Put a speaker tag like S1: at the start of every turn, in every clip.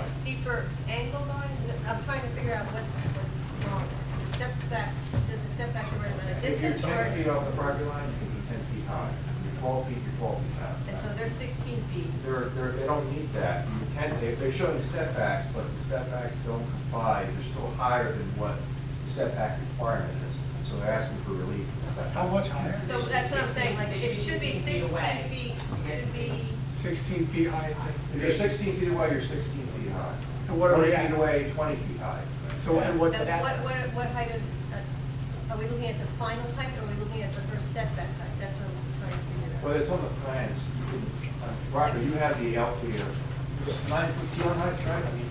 S1: other angle going, I'm trying to figure out what's, what's wrong. It steps back, does it step back the right amount of
S2: If you're
S1: distance or?
S2: ten feet off the property line, you can be ten feet high. If you're twelve feet, you're twelve feet high.
S1: And so they're sixteen feet.
S2: They're, they're, they don't need that. The Ten, they, they're showing setbacks, but the setbacks don't comply. They're still higher than what the setback requirement is. So they're asking for relief from the setback.
S3: How much higher?
S1: So that's what I'm saying, like,
S4: They
S1: it should be sixteen
S4: away.
S1: feet, it'd be, uh,
S3: Sixteen feet high.
S2: If you're sixteen feet away, you're sixteen feet high.
S3: And what are we
S2: Twenty
S3: at?
S2: feet away, twenty feet high.
S3: So, and what's
S1: the- what,
S3: that?
S1: what, what height of, uh, are we looking at the final height or are we looking at the first setback height? That's what I'm trying to figure
S2: Well,
S1: out.
S2: it's on the plans. You can- uh, Roger, you have the out here. Nine foot ceiling height, right? I mean,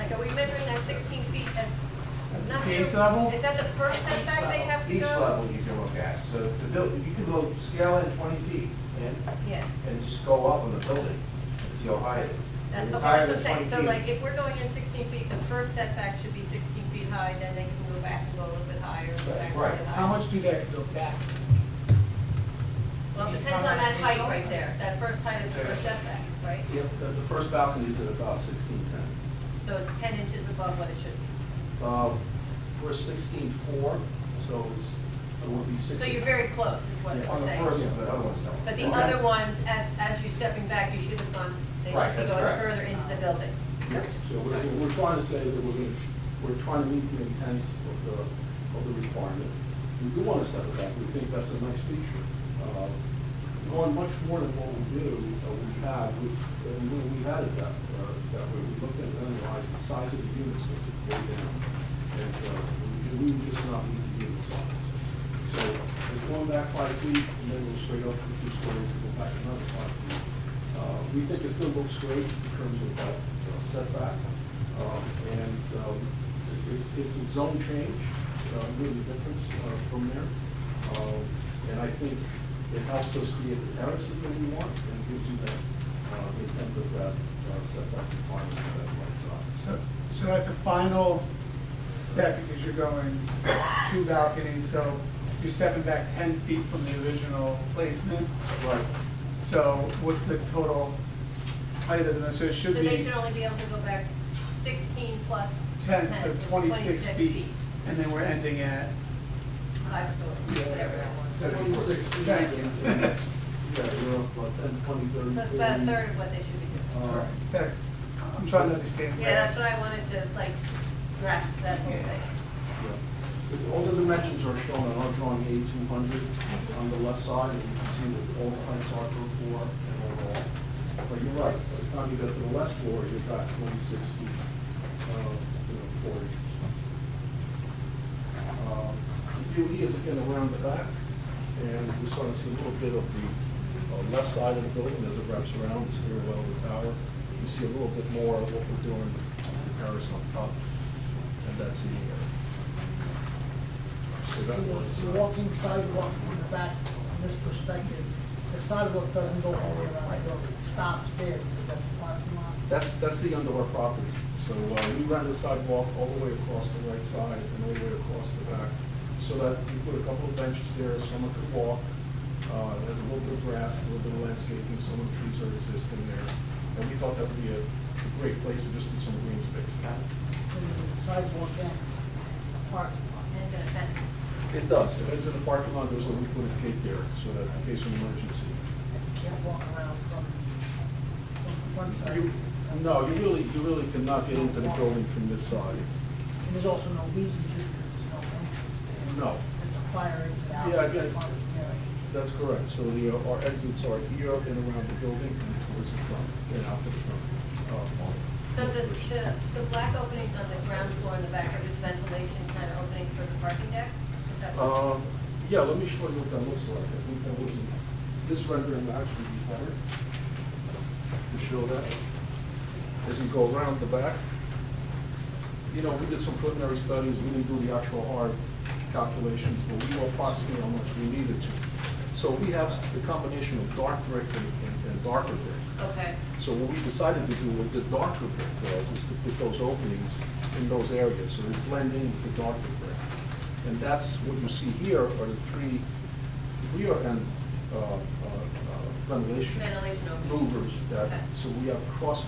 S1: Like, are we measuring that sixteen feet at, I'm not sure.
S3: Base level?
S1: Is that the first setback they have to
S2: each
S1: go?
S2: level you can look at. So the buil, you can go scale in twenty feet and,
S1: Yeah.
S2: and just go up on the building and see how high it is.
S1: That's,
S2: If
S1: okay,
S2: it's
S1: that's
S2: higher
S1: what I'm
S2: than
S1: saying,
S2: 20
S1: so
S2: feet,
S1: like, if we're going in sixteen feet, the first setback should be sixteen feet high, then they can go back and go a little bit higher, go
S2: Right,
S1: back a
S2: right.
S1: little bit higher.
S3: How much do they have to go back?
S1: Well, it depends on that height right there, that first height is the first setback, right?
S5: Yep, the, the first balcony is at about sixteen ten.
S1: So it's ten inches above what it should be.
S5: Uh, we're sixteen four, so it's, it would be sixteen.
S1: So you're very close, is what
S5: Yeah,
S2: On the
S1: we're saying.
S2: first, but other ones don't.
S1: But the
S5: Okay.
S1: other ones, as, as you're stepping back, you should have gone, they
S2: Right,
S1: should
S2: that's
S1: be going
S2: correct.
S1: further into the building.
S5: Yes, so what what we're trying to say is that we're going, we're trying to meet the intent of the, of the requirement. We do want to step it back, we think that's a nice feature. Uh, Going much more than what we do, uh, we have, we, uh, we we had it that, uh, that way, we looked at and analyzed the size of the units that could go down. And uh, we we would just not meet the unit size. So it's going back five feet, and then we'll straight up for two stories and go back another five feet. Uh, We think it still looks great in terms of that uh, setback, Um, and um, it- it's, it's a zone change, uh, really difference uh, from there. Um, And I think it helps us create the terraces that we want and gives you that, uh, the intent of that uh, setback requirement for that right side.
S3: So, so at the final step, because you're going two balconies, so you're stepping back ten feet from the original placement.
S5: Right.
S3: So what's the total height of this? So
S1: So
S3: it should
S1: they
S3: be
S1: should only be able to go back sixteen plus
S3: ten,
S1: ten,
S3: so
S1: it's
S3: twenty-six feet. And then we're ending at,
S1: Five stories, whatever that was.
S2: So-
S5: Twenty-six feet.
S3: Thank you.
S5: Yeah, you're up, what, ten, twenty,
S1: So
S5: thirty.
S1: it's about a
S5: 40.
S1: third of what they should be doing.
S5: Uh,
S3: that's, I'm trying to understand.
S1: Yeah, that's what I wanted to, like, grasp that whole thing.
S5: Yeah. All the dimensions are shown on our drawing A two hundred on the left side, and you can see that all the heights are per floor and overall. But you're right, by the time you get to the west floor, you've got twenty-six feet, uh, you know, four inches. Um, The view here is again around the back, and we sort of see a little bit of the uh, left side of the building as it wraps around the stairwell of the tower. You see a little bit more of what we're doing in comparison on top, and that's the area. So that was,
S6: The
S5: uh,
S6: walking sidewalk in the back, from this perspective, the sidewalk doesn't go all the way around my building, it stops there, because that's a parking lot.
S5: that's, that's the end of our property. So uh, we ran the sidewalk all the way across the right side and all the way across the back, so that we put a couple of benches there, someone could walk. Uh, There's a little bit of grass, a little bit of landscaping, some of the trees are existing there. And we thought that would be a a great place to just do some green space.
S6: And The sidewalk ends, a parking lot.
S1: And it's gonna fence.
S5: It does. It ends in the parking lot, there's a little bit of gate there, so that in case of an emergency.
S6: And you can't walk around from, from the front side.
S5: You- No, you really, you really cannot get into the building from this side.
S6: And there's also no reason to, because there's no entrance there.
S5: No.
S6: It's a fire exit out.
S5: Yeah, I get it.
S6: Parking area.
S5: That's correct. So the, uh, our exits are here and around the building and towards the front, and out the front. uh, wall.
S1: So the, the, the black openings on the ground floor in the back are just ventilation kind of openings for the parking deck? Is that what-
S5: Um, Yeah, let me show you what that looks like. I think that was, this rendering will actually be better to show that. As you go around the back, you know, we did some preliminary studies, we didn't do the actual hard calculations, but we know approximately how much we needed to. So we have the combination of dark brick and- and and darker brick.
S1: Okay,
S5: So what we decided to do with the darker brick was, is to put those openings in those areas, so we blend in with the darker brick. And that's what you see here are the three rear end uh, uh, uh, ventilation
S1: ventilation openings.
S5: louvers that,
S1: Okay.
S5: so we have cross